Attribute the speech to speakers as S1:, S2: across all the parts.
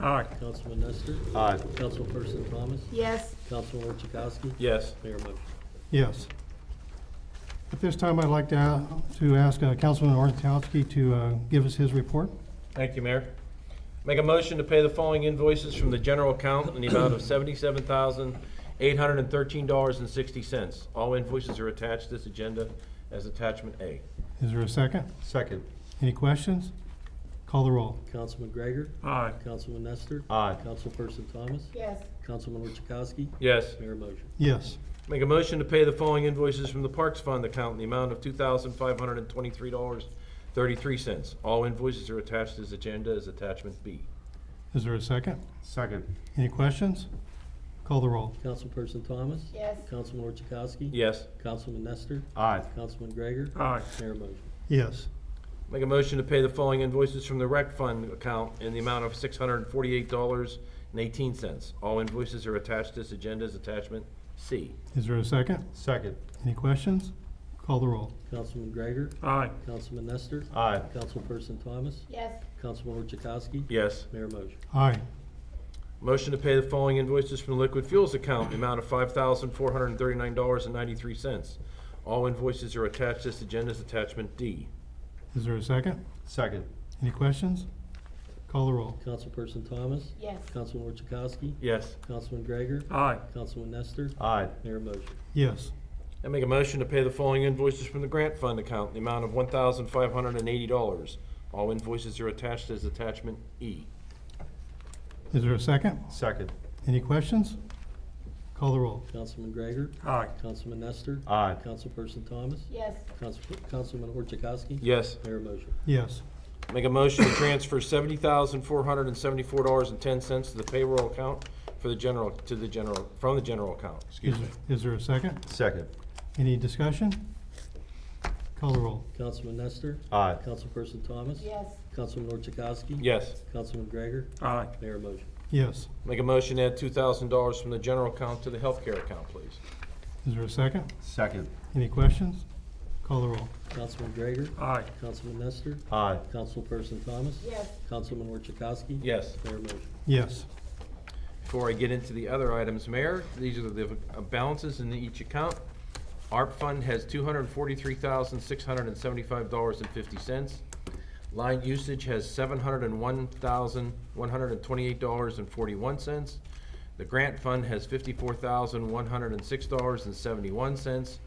S1: Aye.
S2: Councilman Nestor,
S3: Aye.
S2: Councilperson Thomas,
S4: Yes.
S2: Councilman Chakowski.
S3: Yes.
S2: Mayor motion.
S5: Yes. At this time, I'd like to, a- to ask uh, Councilman Orzachowski to uh, give us his report.
S3: Thank you, Mayor. Make a motion to pay the following invoices from the general account in the amount of seventy-seven thousand, eight hundred and thirteen dollars and sixty cents. All invoices are attached to this agenda as attachment A.
S5: Is there a second?
S3: Second.
S5: Any questions? Call the roll.
S2: Councilman Gregor,
S1: Aye.
S2: Councilman Nestor.
S3: Aye.
S2: Councilperson Thomas,
S4: Yes.
S2: Councilman Chakowski.
S3: Yes.
S2: Mayor motion.
S5: Yes.
S3: Make a motion to pay the following invoices from the Parks Fund account in the amount of two thousand, five hundred and twenty-three dollars, thirty-three cents. All invoices are attached to this agenda as attachment B.
S5: Is there a second?
S6: Second.
S5: Any questions? Call the roll.
S2: Councilperson Thomas.
S4: Yes.
S2: Councilman Chakowski.
S3: Yes.
S2: Councilman Nestor,
S6: Aye.
S2: Councilman Gregor,
S1: Aye.
S2: Mayor motion.
S5: Yes.
S3: Make a motion to pay the following invoices from the rec fund account in the amount of six hundred and forty-eight dollars and eighteen cents. All invoices are attached to this agenda as attachment C.
S5: Is there a second?
S6: Second.
S5: Any questions? Call the roll.
S2: Councilman Gregor,
S1: Aye.
S2: Councilman Nestor,
S6: Aye.
S2: Councilperson Thomas,
S4: Yes.
S2: Councilman Chakowski.
S3: Yes.
S2: Mayor motion.
S5: Aye.
S3: Motion to pay the following invoices from the liquid fuels account in the amount of five thousand four hundred and thirty-nine dollars and ninety-three cents. All invoices are attached to this agenda as attachment D.
S5: Is there a second?
S6: Second.
S5: Any questions? Call the roll.
S2: Councilperson Thomas,
S4: Yes.
S2: Councilman Chakowski,
S3: Yes.
S2: Councilman Gregor,
S1: Aye.
S2: Councilman Nestor,
S6: Aye.
S2: Mayor motion.
S5: Yes.
S3: I make a motion to pay the following invoices from the grant fund account in the amount of one thousand five hundred and eighty dollars. All invoices are attached as attachment E.
S5: Is there a second?
S6: Second.
S5: Any questions? Call the roll.
S2: Councilman Gregor,
S1: Aye.
S2: Councilman Nestor,
S6: Aye.
S2: Councilperson Thomas,
S4: Yes.
S2: Council- Councilman Orchakowski.
S3: Yes.
S2: Mayor motion.
S5: Yes.
S3: Make a motion to transfer seventy thousand, four hundred and seventy-four dollars and ten cents to the payroll account for the general, to the general, from the general account, excuse
S5: Is-
S3: me.
S5: Is there a second?
S6: Second.
S5: Any discussion? Call the roll.
S2: Councilman Nestor,
S6: Aye.
S2: Councilperson Thomas.
S4: Yes.
S2: Councilman Orchakowski.
S3: Yes.
S2: Councilman Gregor,
S1: Aye.
S2: Mayor motion.
S5: Yes.
S3: Make a motion to add two thousand dollars from the general account to the healthcare account, please.
S5: Is there a second?
S6: Second.
S5: Any questions? Call the roll.
S2: Councilman Gregor,
S1: Aye.
S2: Councilman Nestor,
S6: Aye.
S2: Councilperson Thomas.
S4: Yes.
S2: Councilman Orchakowski.
S3: Yes.
S2: Mayor motion.
S5: Yes.
S3: Before I get into the other items, Mayor, these are the uh, balances in each account. ARP fund has two hundred and forty-three thousand, six hundred and seventy-five dollars and fifty cents. Line usage has seven hundred and one thousand, one hundred and twenty-eight dollars and forty-one cents. The grant fund has fifty-four thousand, one hundred and six dollars and seventy-one cents.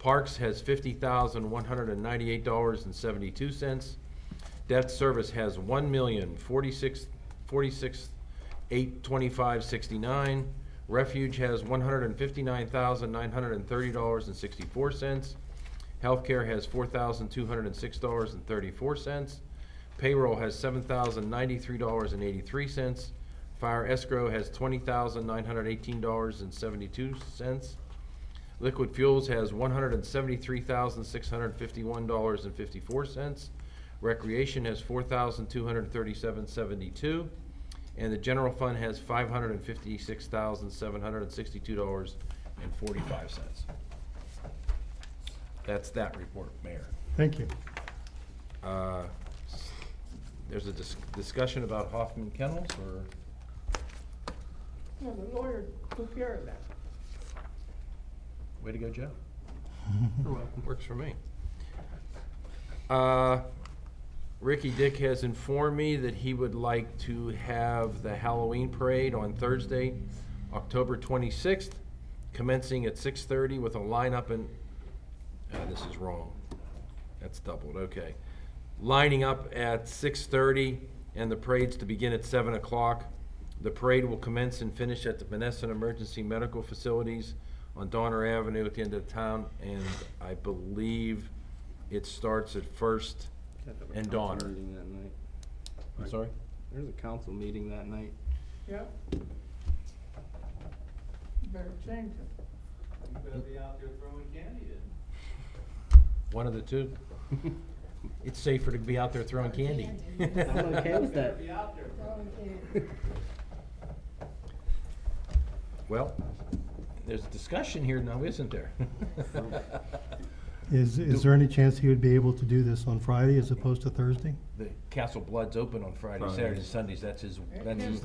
S3: Parks has fifty thousand, one hundred and ninety-eight dollars and seventy-two cents. Debt service has one million, forty-six, forty-six, eight twenty-five sixty-nine. Refuge has one hundred and fifty-nine thousand, nine hundred and thirty dollars and sixty-four cents. Healthcare has four thousand, two hundred and six dollars and thirty-four cents. Payroll has seven thousand, ninety-three dollars and eighty-three cents. Fire escrow has twenty thousand, nine hundred eighteen dollars and seventy-two cents. Liquid Fuels has one hundred and seventy-three thousand, six hundred fifty-one dollars and fifty-four cents. Recreation has four thousand, two hundred thirty-seven seventy-two. And the general fund has five hundred and fifty-six thousand, seven hundred and sixty-two dollars and forty-five cents. That's that report, Mayor.
S5: Thank you.
S3: Uh, s- There's a dis- discussion about Hoffman Kennels, or?
S7: Yeah, the lawyer took care of that.
S3: Way to go, Joe. You're welcome. Works for me. Uh, Ricky Dick has informed me that he would like to have the Halloween parade on Thursday, October 26th, commencing at 6:30 with a lineup and, uh, this is wrong. That's doubled, okay. Lining up at 6:30 and the parades to begin at 7 o'clock. The parade will commence and finish at the Menneson Emergency Medical Facilities on Donner Avenue at the end of town, and I believe it starts at First and Donner.
S8: meeting that night.
S3: I'm sorry?
S8: There's a council meeting that night.
S7: Yep. You Better change it.
S9: You better be out there throwing candy then.
S3: One of the two. It's safer to be out there throwing candy.
S8: I'm okay with that.
S9: Better be out there.
S3: Well, there's discussion here now, isn't there?
S5: Is, is there any chance he would be able to do this on Friday as opposed to Thursday?
S3: The Castle Blood's open on Friday, Saturdays, and Sundays, that's his, that's his